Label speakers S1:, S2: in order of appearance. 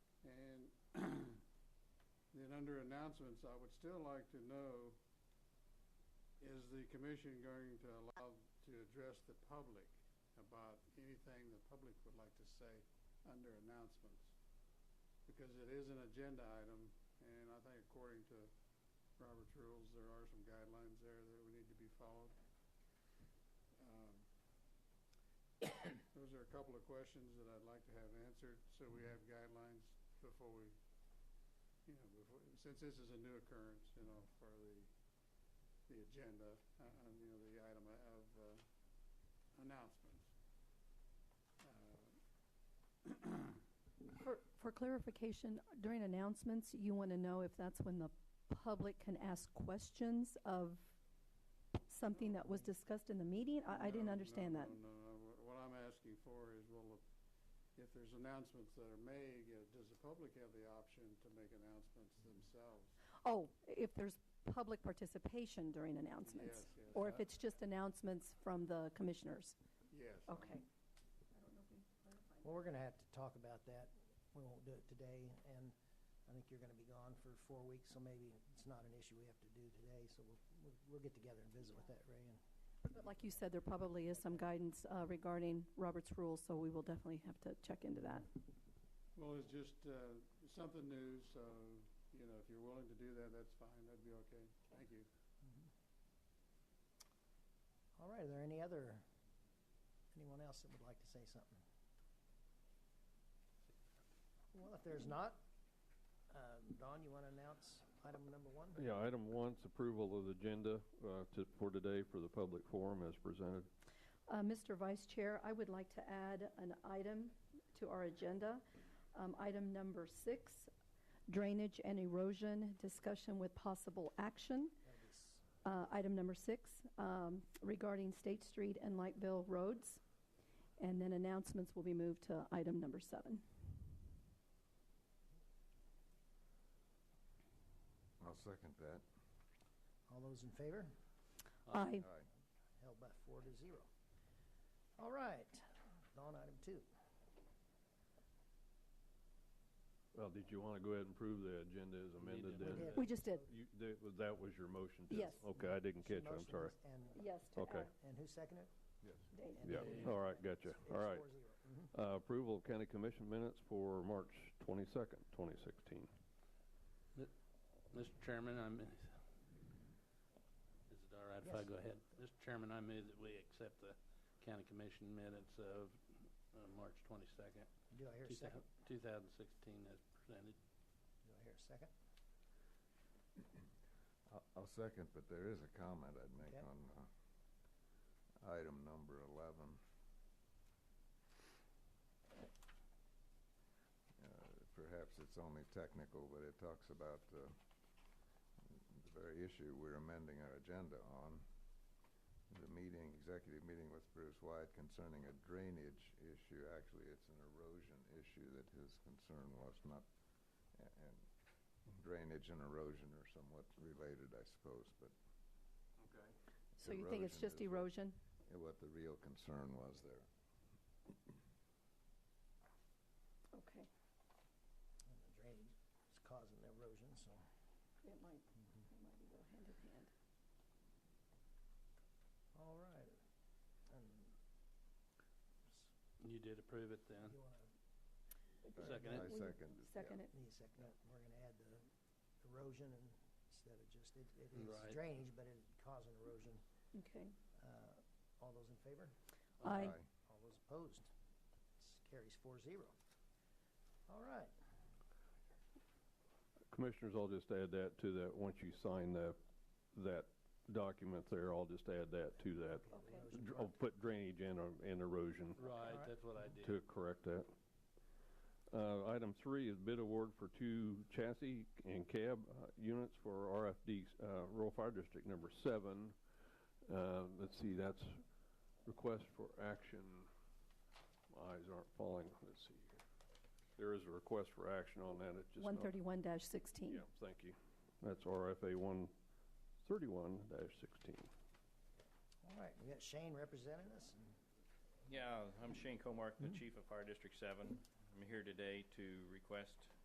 S1: under announcements, I would still like to know, is the commission going to allow to address the public about anything the public would like to say under announcements? Because it is an agenda item, and I think according to Robert's rules, there are some guidelines there that would need to be followed. Um, Those are a couple of questions that I'd like to have answered, so we have guidelines before we you know, before, since this is a new occurrence, you know, for the, the agenda, uh, uh, you know, the item of, uh, announcements. Uh,
S2: For, for clarification, during announcements, you want to know if that's when the public can ask questions of something that was discussed in the meeting? I, I didn't
S1: no,
S2: understand
S1: no,
S2: that.
S1: No, no, no, Wh- what I'm asking for is, well, if there's announcements that are made, you know, does the public have the option to make announcements themselves?
S2: Oh, if there's public participation during announcements?
S1: Yes, yes.
S2: Or if it's just announcements from the commissioners?
S1: Yes. I-
S2: Okay.
S3: Well, we're gonna have to talk about that. We won't do it today, and I think you're gonna be gone for four weeks, so maybe it's not an issue we have to do today, so we'll, we'll, we'll get together and visit with that, Ray, and
S2: But like you said, there probably is some guidance uh, regarding Robert's rules, so we will definitely have to check into that.
S1: Well, it's just, uh, something new, so, you know, if you're willing to do that, that's fine, that'd be okay, thank you.
S3: All right, are there any other, anyone else that would like to say something? Well, if there's not, uh, Don, you want to announce item number one?
S4: Yeah, item one's approval of the agenda uh, to- for today for the public forum as presented.
S2: Uh, Mr. Vice Chair, I would like to add an item to our agenda. Um, Item number six, drainage and erosion discussion with possible action.
S3: That'll be s-
S2: Uh, Item number six um, regarding State Street and Lightville roads. And then announcements will be moved to item number seven.
S5: I'll second that.
S3: All those in favor?
S2: Aye.
S5: Aye.
S3: Held by four to zero. All right, Don, item two.
S4: Well, did you want to go ahead and prove the agenda is amended
S3: We
S4: then?
S3: did.
S2: We just did,
S4: You- that was- That was your motion? to-
S2: Yes.
S4: Okay, I didn't
S3: She
S4: catch, I'm
S3: motioned
S4: sorry.
S3: And,
S2: yes, to
S4: Okay.
S2: add
S3: and who seconded?
S5: Yes.
S2: data.
S3: And
S4: Yeah,
S3: Dave.
S4: all right, gotcha,
S3: It's
S4: all right.
S3: four zero. Mhm.
S4: Uh, Approval of county commission minutes for March 22nd, 2016.
S6: Mr. Chairman, I'm, is it all right if I
S3: Yes.
S6: go ahead? Mr. Chairman, I move that we accept the county commission minutes of uh, March twenty-second,
S3: Do I hear a second?
S6: two thousand sixteen as presented.
S3: Do I hear a second?
S5: I'll- I'll second, but there is a comment I'd make
S3: Yep.
S5: on uh, item number 11. Uh, Perhaps it's only technical, but it talks about uh, the very issue we're amending our agenda on. The meeting, executive meeting with Bruce White concerning a drainage issue. Actually, it's an erosion issue that his concern was, not, a- and drainage and erosion are somewhat related, I suppose, but
S4: Okay.
S2: So you think it's
S5: Erosion
S2: just
S5: is what-
S2: erosion?
S5: what the real concern was there.
S2: Okay.
S3: And the drainage is causing the erosion, so.
S2: It might, it might go hand in hand.
S3: All right. And
S6: You did approve it then?
S3: you wanna,
S5: I-
S6: Second
S5: I
S6: it.
S2: Will you
S5: second it.
S2: Second it.
S3: need a second, it? we're gonna add the erosion and instead of just, it, it is
S6: Right.
S3: drainage, but it's causing erosion.
S2: Okay.
S3: Uh, all those in favor?
S2: Aye.
S3: All those opposed? This Carries four zero. All right.
S4: Commissioners, I'll just add that to that, once you sign the, that document there, I'll just add that to that.
S3: the
S2: Okay.
S3: erosion
S4: Dr-
S3: part.
S4: I'll put drainage and uh, and erosion.
S6: Right,
S3: Alright.
S6: that's what I did.
S4: to correct that. Uh, Item three is bid award for two chassis and cab uh, units for RFD, uh, Rural Fire District Number Seven. Uh, Let's see, that's request for action. My eyes aren't falling, let's see here. There is a request for action on that, it's just not.
S2: One thirty-one sixteen.
S4: Yeah, thank you. That's RFA one thirty-one sixteen.
S3: All right, we got Shane representing us. and
S7: Yeah, I'm Shane Comark, the Chief of Fire District Seven. I'm here today to request